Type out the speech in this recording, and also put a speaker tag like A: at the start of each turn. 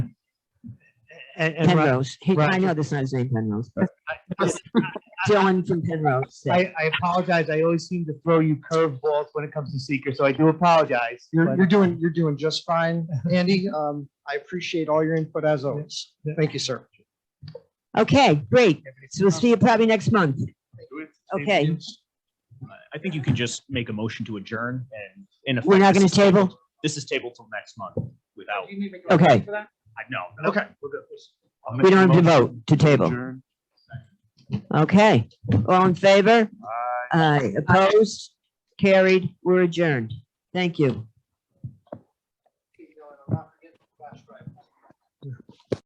A: and, and Rob,
B: Penrose. He, I
A: Roger-
B: know that's not his name, Penrose. Dylan from Penrose. said-
A: I, I apologize. I always seem to throw you curveballs when it comes to seeker, so I do apologize.
C: You're,
A: but-
C: you're doing, you're doing just fine, Andy. Um, I appreciate all your input as always.
A: Yeah.
C: Thank you, sir.
B: Okay, great. So we'll see you probably next month. Okay,
D: I think you can just make a motion to adjourn and in effect.
B: We're not
D: this
B: gonna
D: is tabled-
B: table?
D: This is tabled till next month without,
B: okay.
D: I know.
C: Okay.
B: We don't have to vote to table. Okay, all in favor? Aye. Opposed? Carried, we're adjourned. Thank you.